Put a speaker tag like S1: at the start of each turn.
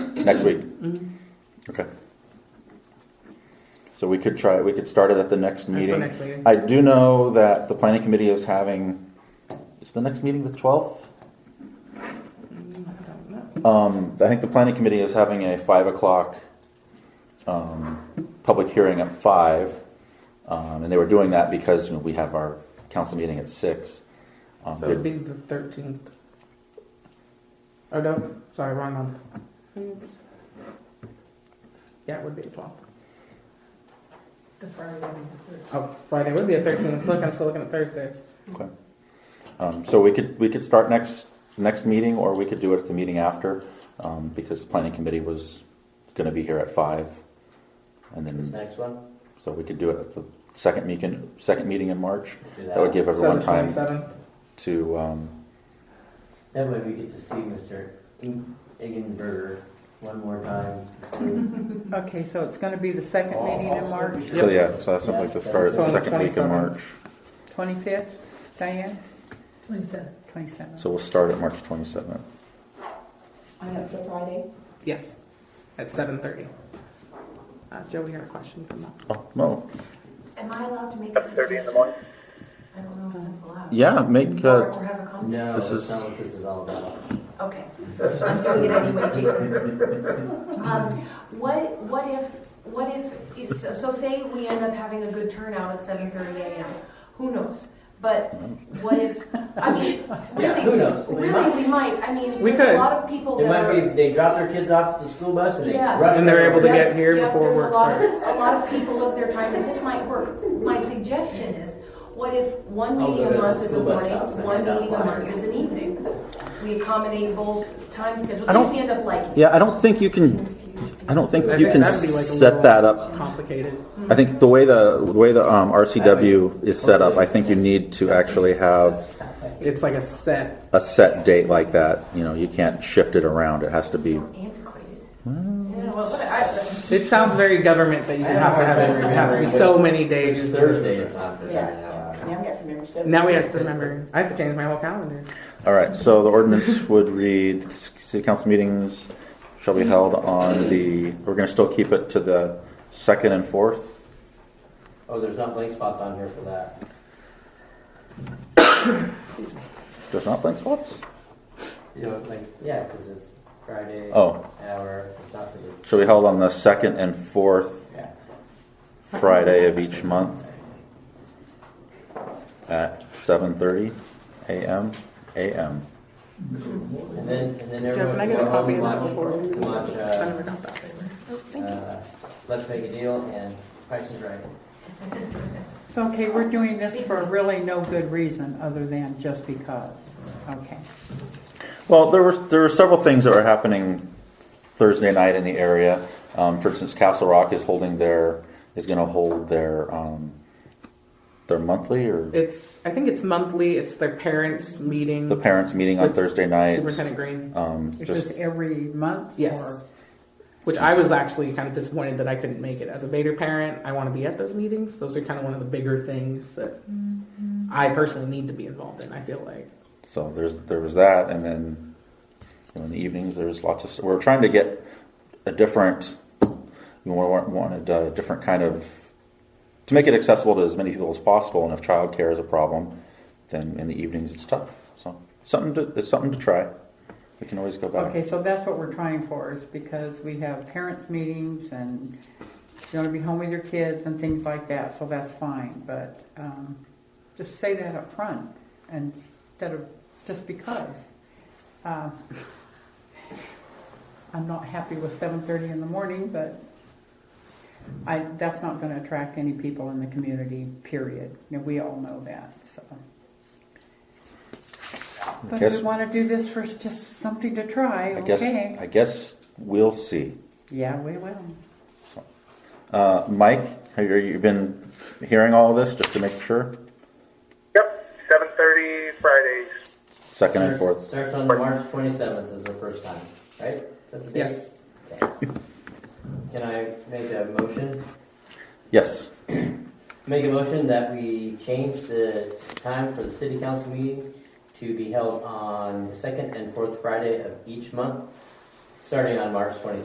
S1: next week?
S2: Mm-hmm.
S1: Okay. So we could try, we could start it at the next
S2: the
S1: meeting.
S2: next meeting.
S1: I do know that the planning committee is having, is the next meeting the twelfth? Um, I think the planning committee is having a five o'clock, um, public hearing at five. Um, and they were doing that because you know, we have our council meeting at six. Um,
S2: So it'd be the thirteenth. Oh, no, sorry, wrong month. Yeah, it would be the twelfth.
S3: The Friday the third.
S2: Oh, Friday would be the thirteenth. Look, I'm still looking at Thursdays.
S1: Um, so we could, we could start next, next meeting, or we could do it at the meeting after, um, because the planning committee was gonna be here at five. And
S4: This
S1: then,
S4: next one,
S1: so we could do it at the second meeting, second meeting in March.
S4: let's do that.
S1: That would give everyone
S2: so the
S1: time
S2: 27th.
S1: to, um,
S4: That way we get to see Mr. Eggenberger one more time.
S5: Okay, so it's gonna be the
S1: Oh.
S5: second meeting in March,
S1: so yeah, so that's something to start at the
S2: So on the
S1: second week in
S2: 27th.
S1: March.
S5: twenty-fifth, Diane,
S3: Twenty-seven.
S5: twenty-seventh.
S1: So we'll start at March twenty-seventh.
S3: I know, it's a Friday.
S2: Yes, at seven thirty. Uh, Joe, we had a question from that.
S1: Oh, no,
S6: Am I allowed to make a suggestion? in the morning? I don't know if that's allowed.
S1: yeah, make,
S6: Or,
S1: uh,
S6: or have a comment?
S4: No,
S1: This
S4: that's
S1: is-
S4: not what this is all about.
S6: Okay, I'm doing it anyway, Jason. Um, what, what if, what if, is- so- so say we end up having a good turnout at seven thirty AM, who knows? But what if, I mean,
S4: Yeah, who
S6: really,
S4: knows? We might-
S6: really, we might, I mean,
S2: We
S6: there's a
S2: could.
S6: lot of people
S4: It
S6: that
S4: might
S6: are.
S4: be, they drop their kids off at the school bus and they
S6: Yeah.
S4: rush.
S2: And they're
S4: over.
S2: able to
S6: Yep,
S2: get here
S6: yep,
S2: before
S6: there's
S2: work
S6: a lot of-
S2: starts.
S6: A lot of people live their time, but this might work. My suggestion is, what if one
S4: I'll
S6: meeting
S4: go
S6: a
S4: to Oh, the
S6: month is a
S4: school bus
S6: morning,
S4: stops and
S6: one
S4: hand out
S6: meeting a month
S4: flyers.
S6: is an evening? We accommodate both time schedules,
S1: I don't-
S6: if we end up liking. it.
S1: yeah, I don't think you can, I don't think
S2: I
S1: you
S2: think
S1: can
S2: that'd be, like, a
S1: set
S2: little
S1: that up
S2: Complicated.
S1: I think the way the, the way the um, RCW is set up, I think you need to actually have
S2: It's like a set.
S1: a set date like that. You know, you can't shift it around. It has to be.
S6: So Antiquated. Yeah, well, what I-
S2: It sounds very government that you
S4: I don't
S2: have to
S4: know.
S2: have it. It has to be so many
S4: It's
S2: days.
S4: Thursday, it's not for
S3: Yeah.
S4: that.
S3: Now we have to remember seven.
S2: Now we have to remember. I have to change my whole calendar.
S1: All right. So the ordinance would read: City council meetings shall be held on the. We're going to still keep it to the second and fourth.
S4: Oh, there's not blank spots on here for that.
S1: There's not blank spots.
S4: You know, like, yeah, because it's Friday,
S1: Oh,
S4: hour, it's not for the,
S1: shall be held on the second and fourth
S4: yeah.
S1: Friday of each month at 7:30 a.m. a.m.
S4: And then, and then
S2: Joe,
S4: everyone
S2: can I
S4: can
S2: get
S4: go
S2: a
S4: home
S2: copy
S4: and
S2: of that
S4: watch,
S2: before?
S4: and watch,
S2: I
S4: uh,
S2: never got that.
S4: uh, Let's Make a Deal and Price is Right.
S5: So, okay, we're doing this for really no good reason, other than just because, okay.
S1: Well, there were there were several things that were happening Thursday night in the area. Um, for instance, Castle Rock is holding their is going to hold their um, their monthly or
S2: It's. I think it's monthly. It's their parents' meeting.
S1: the parents meeting on
S2: With
S1: Thursday nights.
S2: Superintendent Green.
S1: Um,
S5: Is
S1: just
S5: this every month?
S2: Yes. Which I was actually kind of disappointed that I couldn't make it. As a Vader parent, I want to be at those meetings. Those are kind of one of the bigger things that
S5: Mm-hmm.
S2: I personally need to be involved in. I feel like.
S1: so there's there was that, and then you know, in the evenings there's lots of we're trying to get a different we wa- wanted a different kind of to make it accessible to as many people as possible. And if childcare is a problem, then in the evenings it's tough. So something to, it's something to try. We can always go
S5: Or-
S1: back.
S5: Okay, so that's what we're trying for, is because we have parents' meetings and you wanna be home with your kids and things like that, so that's fine, but, um, just say that up front instead of just because. Uh, I'm not happy with seven thirty in the morning, but I, that's not gonna attract any people in the community, period. Now, we all know that, so. But if
S1: Yes.
S5: we wanna do this for just something to try,
S1: I guess
S5: okay?
S1: I guess we'll see.
S5: Yeah, we will.
S1: So, uh, Mike, have you, you been hearing all of this just to make sure?
S7: Yep, seven thirty Fridays.
S1: Second and fourth.
S4: Starts on March twenty-seventh is the first time, right? Is that the date?
S2: Yes.
S4: Okay. Can I make a motion?
S1: Yes.
S4: Make a motion that we change the time for the city council meeting to be held on the second and fourth Friday of each month, starting on March twenty-seventh.